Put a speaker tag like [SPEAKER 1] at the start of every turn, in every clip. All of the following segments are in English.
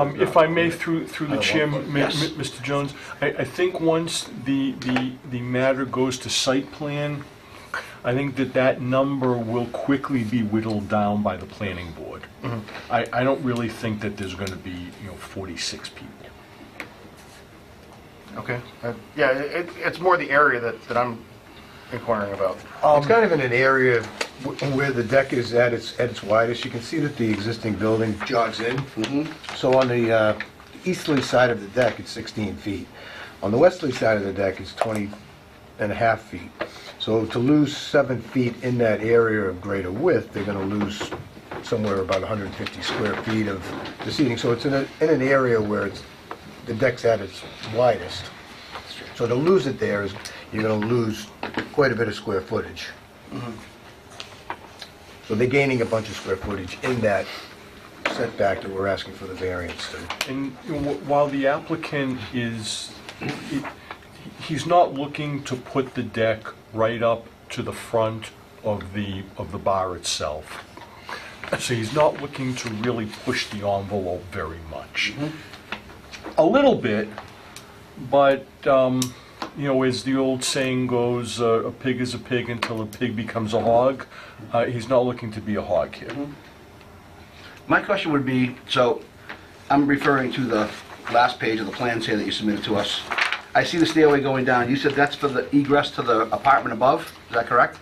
[SPEAKER 1] Um, If I may, through, through the
[SPEAKER 2] Uh,
[SPEAKER 1] chair,
[SPEAKER 2] one-
[SPEAKER 1] m-
[SPEAKER 2] yes.
[SPEAKER 1] m- Mr. Jones, I, I think once the, the, the matter goes to site plan, I think that that number will quickly be whittled down by the planning board. I, I don't really think that there's gonna be, you know, 46 people.
[SPEAKER 2] Okay. Uh, Yeah, it, it's more the area that, that I'm inquiring about.
[SPEAKER 3] It's kind of in an area wh- where the deck is at its, at its widest. You can see that the existing building jogs in. So on the uh, easterly side of the deck, it's 16 feet. On the westerly side of the deck, it's 20 and a half feet. So to lose seven feet in that area of greater width, they're going to lose somewhere about 150 square feet of the seating. So it's in a, in an area where it's, the deck's at its widest. So to lose it there is, you're gonna lose quite a bit of square footage. So they're gaining a bunch of square footage in that setback that we're asking for the variance to.
[SPEAKER 1] And wh- while the applicant is, he- he's not looking to put the deck right up to the front of the, of the bar itself. So he's not looking to really push the envelope very much. A little bit, but, um, you know, as the old saying goes, uh, a pig is a pig until a pig becomes a hog. Uh, He's not looking to be a hog here.
[SPEAKER 4] My question would be, so, I'm referring to the last page of the plans here that you submitted to us. I see the stairway going down, you said that's for the egress to the apartment above, is that correct?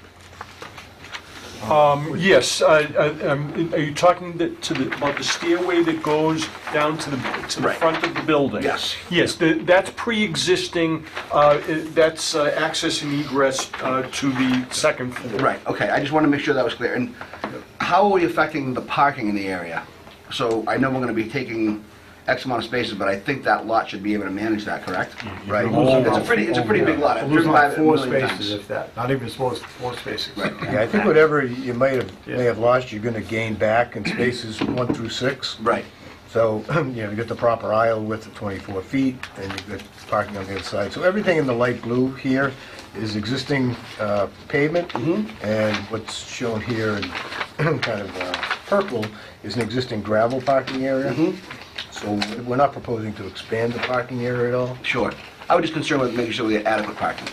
[SPEAKER 1] Yes, I- I- um, are you talking the- to the, about the stairway that goes down to the, to the
[SPEAKER 4] Right.
[SPEAKER 1] front of the building?
[SPEAKER 4] Yes.
[SPEAKER 1] Yes, the- that's pre-existing, uh, i- that's uh, access and egress uh, to the second floor.
[SPEAKER 4] Right, okay, I just want to make sure that was clear. And how are we affecting the parking in the area? So, I know we're going to be taking X amount of spaces, but I think that lot should be able to manage that, correct?
[SPEAKER 3] Right.
[SPEAKER 4] It's a pretty, it's a pretty big lot, I've driven by it a million times.
[SPEAKER 2] that, not even four, four spaces.
[SPEAKER 3] Yeah, I think whatever you might have, may have lost, you're gonna gain back in spaces one through six.
[SPEAKER 4] Right,
[SPEAKER 3] So, you know, you get the proper aisle width of 24 feet, and you've got parking on the other side. So everything in the light blue here is existing uh, pavement,
[SPEAKER 4] Mm-hmm.
[SPEAKER 3] and what's shown here in kind of uh, purple is an existing gravel parking area.
[SPEAKER 4] Mm-hmm.
[SPEAKER 3] So we're not proposing to expand the parking area at all.
[SPEAKER 4] sure. I was just concerned with making sure we had adequate parking,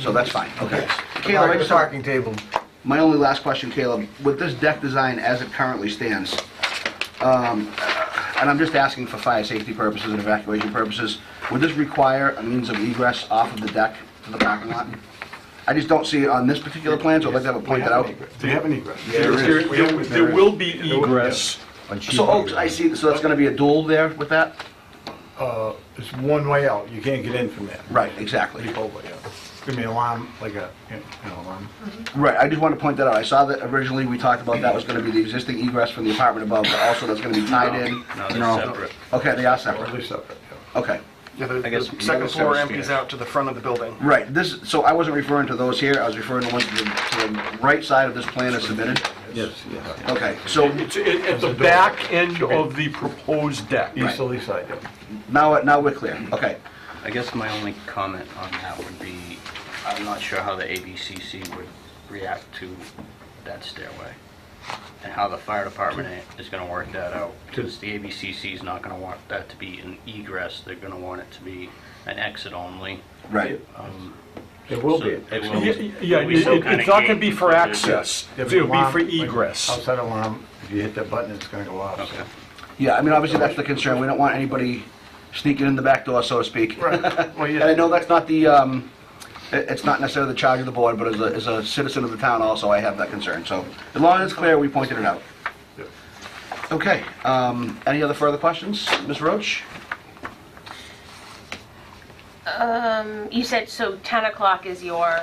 [SPEAKER 4] so that's fine, okay. Caleb, I
[SPEAKER 3] The
[SPEAKER 4] just have-
[SPEAKER 3] parking table,
[SPEAKER 4] My only last question, Caleb, with this deck design as it currently stands, um, and I'm just asking for fire safety purposes and evacuation purposes, would this require a means of egress off of the deck to the parking lot? I just don't see it on this particular plan, so I'd like to have it pointed out.
[SPEAKER 2] They have an egress.
[SPEAKER 1] There- There there will be egress.
[SPEAKER 3] on sheet
[SPEAKER 4] So, oh,
[SPEAKER 3] here.
[SPEAKER 4] I see, so that's gonna be a dual there with that?
[SPEAKER 2] It's one way out, you can't get in from there.
[SPEAKER 4] Right, exactly.
[SPEAKER 2] Leap over, yeah. It's gonna be an alarm, like a, you know, alarm.
[SPEAKER 4] Right, I just want to point that out. I saw that originally we talked about that was gonna be the existing egress from the apartment above, but also that's gonna be tied in.
[SPEAKER 5] No, they're separate.
[SPEAKER 4] Okay, they are
[SPEAKER 2] Or at
[SPEAKER 4] separate,
[SPEAKER 2] least up there, yeah.
[SPEAKER 4] okay.
[SPEAKER 6] Yeah, the,
[SPEAKER 5] I guess
[SPEAKER 6] the second
[SPEAKER 5] another
[SPEAKER 6] floor
[SPEAKER 5] service
[SPEAKER 6] empties
[SPEAKER 5] stair.
[SPEAKER 6] out to the front of the building.
[SPEAKER 4] Right, this, so I wasn't referring to those here, I was referring to ones to the, to the right side of this plan as submitted?
[SPEAKER 5] Yes, yes.
[SPEAKER 4] Okay, so
[SPEAKER 1] It's at at the back end of the proposed deck.
[SPEAKER 2] Easterly side, yeah.
[SPEAKER 4] now, now we're clear, okay.
[SPEAKER 5] I guess my only comment on that would be, I'm not sure how the ABCC would react to that stairway, and how the fire department i- is gonna work that out, because the ABCC is not gonna want that to be an egress, they're gonna want it to be an exit only.
[SPEAKER 4] Right,
[SPEAKER 2] It will be.
[SPEAKER 5] So it will-
[SPEAKER 1] Yeah, Yeah,
[SPEAKER 5] Will we still
[SPEAKER 1] it-
[SPEAKER 5] kinda
[SPEAKER 1] it's not gonna be
[SPEAKER 5] gate
[SPEAKER 1] for
[SPEAKER 5] the-
[SPEAKER 1] access,
[SPEAKER 2] There'll
[SPEAKER 1] it'll be
[SPEAKER 2] alarm,
[SPEAKER 1] for
[SPEAKER 2] like
[SPEAKER 1] egress.
[SPEAKER 2] Outside alarm, if you hit that button, it's gonna go off. so.
[SPEAKER 5] Okay.
[SPEAKER 4] yeah, I mean, obviously that's the concern, we don't want anybody sneaking in the back door, so to speak.
[SPEAKER 2] Right, well,
[SPEAKER 4] And I
[SPEAKER 2] yeah.
[SPEAKER 4] know that's not the, um, it, it's not necessarily the charge of the board, but as a, as a citizen of the town also, I have that concern, so as long as it's clear, we pointed it out.
[SPEAKER 2] Yeah.
[SPEAKER 4] Okay, um, any other further questions? Ms. Roach?
[SPEAKER 7] You said, so 10 o'clock is your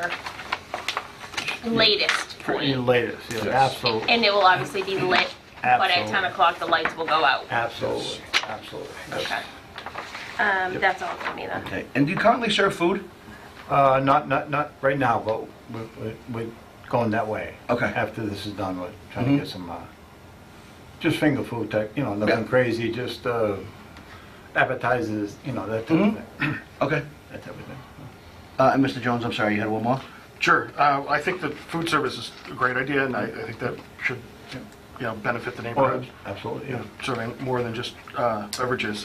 [SPEAKER 7] latest
[SPEAKER 2] Pretty
[SPEAKER 7] point?
[SPEAKER 2] latest, yeah, absolutely,
[SPEAKER 7] And it will obviously be lit, but at 10
[SPEAKER 2] Absolutely.
[SPEAKER 7] o'clock, the lights will go out?
[SPEAKER 2] absolutely, absolutely.
[SPEAKER 7] Okay. Um, That's all for me then.
[SPEAKER 4] Okay, and do you currently serve food?
[SPEAKER 2] Uh, not, not, not right now, but we're, we're- we're going that way.
[SPEAKER 4] Okay. Mm-hmm.
[SPEAKER 2] After this is done, we're trying to get some, uh, just finger food type, you know, nothing
[SPEAKER 4] Yeah.
[SPEAKER 2] crazy, just, uh, appetizers, you know, that type of
[SPEAKER 4] Mm-hmm.
[SPEAKER 2] thing.
[SPEAKER 4] Okay.
[SPEAKER 2] That type of thing.
[SPEAKER 4] Uh, and Mr. Jones, I'm sorry, you had one more?
[SPEAKER 6] Sure, uh, I think that food service is a great idea, and I, I think that should you know, benefit the neighborhood,
[SPEAKER 2] Absolutely,
[SPEAKER 6] you
[SPEAKER 2] yeah.
[SPEAKER 6] know, serving more than just uh, beverages.